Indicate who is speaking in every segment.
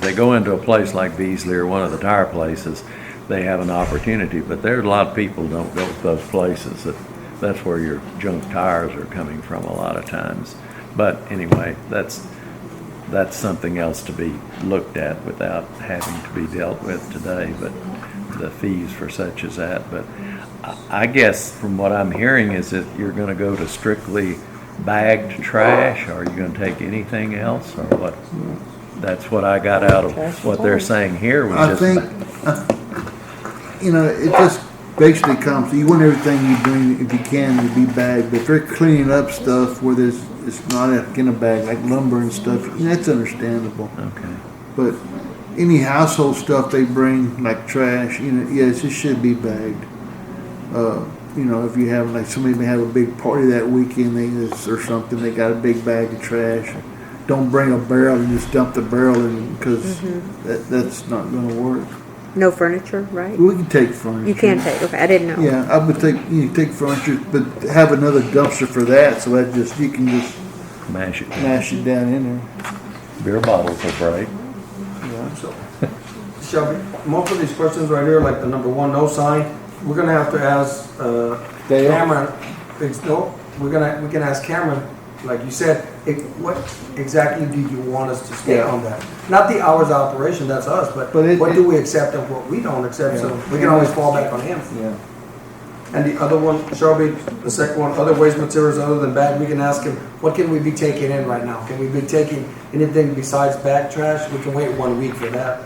Speaker 1: They go into a place like Beasley or one of the tire places, they have an opportunity, but there's a lot of people don't go to those places. That That's where your junk tires are coming from a lot of times. But anyway, that's, that's something else to be looked at without having to be dealt with today, but the fees for such as that. But I- I guess from what I'm hearing is that you're gonna go to strictly bagged trash, or are you gonna take anything else, or what? That's what I got out of what they're saying here was
Speaker 2: I
Speaker 1: just.
Speaker 2: think, uh, you know, it just basically comes, you want everything you bring, if you can, to be bagged, but if they're cleaning up stuff where there's, it's not in a bag, like lumber and stuff, that's understandable.
Speaker 1: Okay,
Speaker 2: But any household stuff they bring, like trash, you know, yes, it should be bagged. Uh, you know, if you have, like, somebody may have a big party that weekend, they just, or something, they got a big bag of trash. Don't bring a barrel and just dump the barrel in, because
Speaker 3: Mm-hmm.
Speaker 2: that, that's not gonna work.
Speaker 3: No furniture, right?
Speaker 2: We can take furniture.
Speaker 3: You can take, okay, I didn't know.
Speaker 2: Yeah, I would take, you know, take furniture, but have another dumpster for that, so that just, you can just
Speaker 1: mash it.
Speaker 2: mash it down in there.
Speaker 1: Beer bottles will break.
Speaker 2: Yeah.
Speaker 4: So, Shelby, most of these questions right here, like the number one, no sign, we're gonna have to ask, uh,
Speaker 2: Dale?
Speaker 4: Cameron, ex- no, we're gonna, we can ask Cameron, like you said, it, what exactly do you want us to state
Speaker 2: Yeah.
Speaker 4: on that? Not the hours of operation, that's us, but
Speaker 2: But it-
Speaker 4: what
Speaker 2: it-
Speaker 4: do we accept and what we don't accept, so
Speaker 2: Yeah.
Speaker 4: we can always fall back on him.
Speaker 2: Yeah.
Speaker 4: And the other one, Shelby, the second one, other waste materials other than bag, we can ask him, what can we be taking in right now? Can we be taking anything besides bag trash? We can wait one week for that.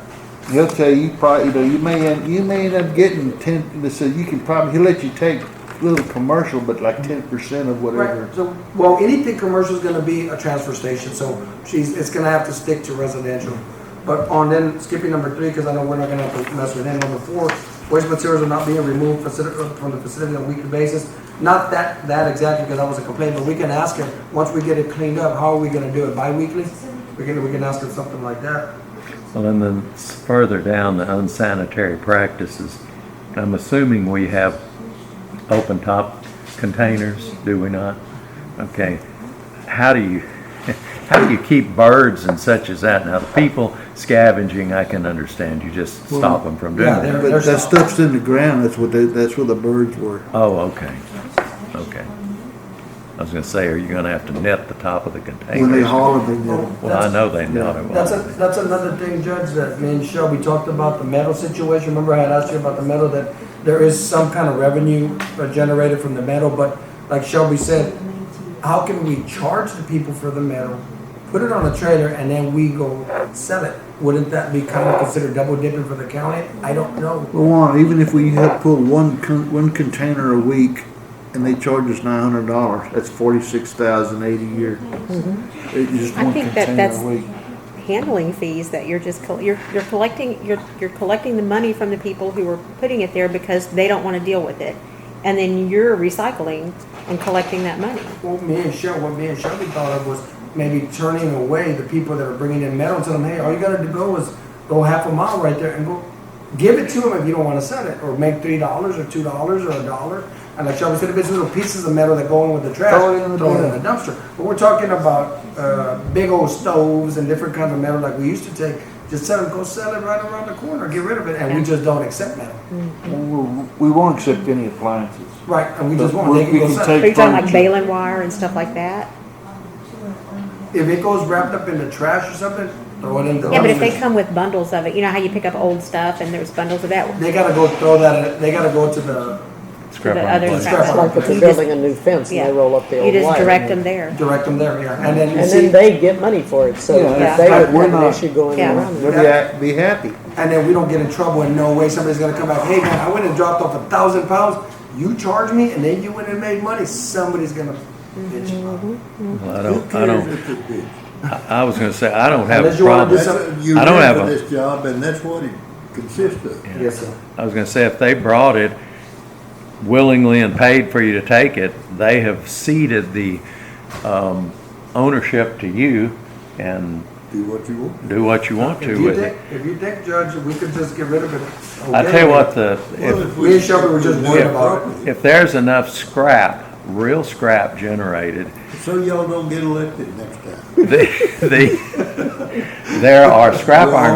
Speaker 2: He'll tell you, you probably, you know, you may end, you may end up getting ten, they said you can probably, he'll let you take little commercial, but like ten percent of whatever.
Speaker 4: Right, so, well, anything commercial is gonna be a transfer station, so she's, it's gonna have to stick to residential. But on then, skipping number three, because I know we're not gonna have to mess with it, number four, waste materials are not being removed facility, from the facility on a weekly basis. Not that, that exactly, because that was a complaint, but we can ask her, once we get it cleaned up, how are we gonna do it, bi-weekly? We can, we can ask her something like that.
Speaker 1: Well, and then s- further down, the unsanitary practices, I'm assuming we have open top containers, do we not? Okay, how do you, how do you keep birds and such as that? Now, the people scavenging, I can understand, you just stop them from doing
Speaker 4: yeah,
Speaker 1: that.
Speaker 4: they're-
Speaker 2: But that
Speaker 4: there's-
Speaker 2: stuff's in the ground, that's what they, that's where the birds were.
Speaker 1: Oh, okay, okay. I was gonna say, are you gonna have to net the top of the
Speaker 2: When they
Speaker 1: containers?
Speaker 2: haul them, they
Speaker 4: Oh.
Speaker 2: get
Speaker 1: Well, I know they net it.
Speaker 4: That's a, that's another thing, Judge, that me and Shelby talked about the metal situation. Remember I had asked you about the metal, that there is some kind of revenue uh, generated from the metal, but like Shelby said, how can we charge the people for the metal, put it on a trailer, and then we go sell it? Wouldn't that be kind of considered double dipping for the county? I don't know.
Speaker 2: Well, Juan, even if we had pulled one con- one container a week, and they charge us nine hundred dollars, that's forty-six thousand eighty a year. It's just
Speaker 3: Mm-hmm. I
Speaker 2: one
Speaker 3: think that
Speaker 2: container
Speaker 3: that's
Speaker 2: a week.
Speaker 3: handling fees that you're just, col- you're, you're collecting, you're, you're collecting the money from the people who are putting it there because they don't want to deal with it. And then you're recycling and collecting that money.
Speaker 4: Well, me and Shelby, what me and Shelby thought of was maybe turning away the people that are bringing in metal and telling them, hey, all you gotta do go is go half a mile right there and go, give it to them if you don't wanna sell it, or make three dollars or two dollars or a dollar. And like Shelby said, if it's little pieces of metal that go in with the trash,
Speaker 2: Throw it in the
Speaker 4: throw it in the dumpster. But we're talking about, uh, big old stoves and different kinds of metal like we used to take, just sell it, go sell it right around the corner, get rid of it, and we just don't accept metal.
Speaker 2: We we won't accept any appliances.
Speaker 4: Right, and we just
Speaker 2: But
Speaker 4: want,
Speaker 2: we-
Speaker 4: they can
Speaker 2: we
Speaker 4: go
Speaker 2: can
Speaker 4: sell it.
Speaker 2: take
Speaker 3: Are you talking like
Speaker 2: Furniture.
Speaker 3: baling wire and stuff like that?
Speaker 4: If it goes wrapped up in the trash or something, throw it in the.
Speaker 3: Yeah, but if
Speaker 4: dumpster.
Speaker 3: they come with bundles of it, you know how you pick up old stuff and there's bundles of that?
Speaker 4: They gotta go throw that, they gotta go to the
Speaker 1: Scrap
Speaker 3: the
Speaker 1: iron
Speaker 3: other
Speaker 1: plate.
Speaker 3: scrap
Speaker 4: Scrap
Speaker 5: Like if
Speaker 3: You
Speaker 5: they're
Speaker 3: just-
Speaker 5: building a new fence and
Speaker 3: yeah.
Speaker 5: they roll up the
Speaker 3: You
Speaker 5: old
Speaker 3: just
Speaker 5: wire.
Speaker 3: direct them there.
Speaker 4: direct them there, yeah, and then you
Speaker 5: And
Speaker 4: see,
Speaker 5: then they get money for it, so
Speaker 2: Yeah,
Speaker 3: it's
Speaker 5: if they
Speaker 2: like
Speaker 5: would
Speaker 2: we're
Speaker 5: have an
Speaker 2: not-
Speaker 5: issue going
Speaker 3: Yeah.
Speaker 5: around.
Speaker 2: They'll be, ha- be happy.
Speaker 4: and then we don't get in trouble in no way, somebody's gonna come back, hey man, I went and dropped off a thousand pounds, you charged me, and then you went and made money, somebody's gonna bitch
Speaker 5: Mm-hmm.
Speaker 4: about it.
Speaker 1: Well, I don't, I don't, I I was gonna say, I don't have a
Speaker 4: Unless you wanna
Speaker 1: problem.
Speaker 4: do something-
Speaker 6: You
Speaker 1: I don't have
Speaker 6: live
Speaker 1: a-
Speaker 6: for this job and that's what it consists of.
Speaker 4: Yes, sir.
Speaker 1: I was gonna say, if they brought it willingly and paid for you to take it, they have ceded the, um, ownership to you and
Speaker 6: Do what you want.
Speaker 1: do what you want
Speaker 4: If
Speaker 1: to
Speaker 4: you
Speaker 1: with it.
Speaker 4: think, if you think, Judge, we could just get rid of it.
Speaker 1: I tell you what, the,
Speaker 6: Well,
Speaker 1: if,
Speaker 6: if
Speaker 4: me and Shelby were just
Speaker 6: if-
Speaker 4: worried about it.
Speaker 1: if there's enough scrap, real scrap generated,
Speaker 6: So y'all don't get elected next time.
Speaker 1: the, the, there are scrap iron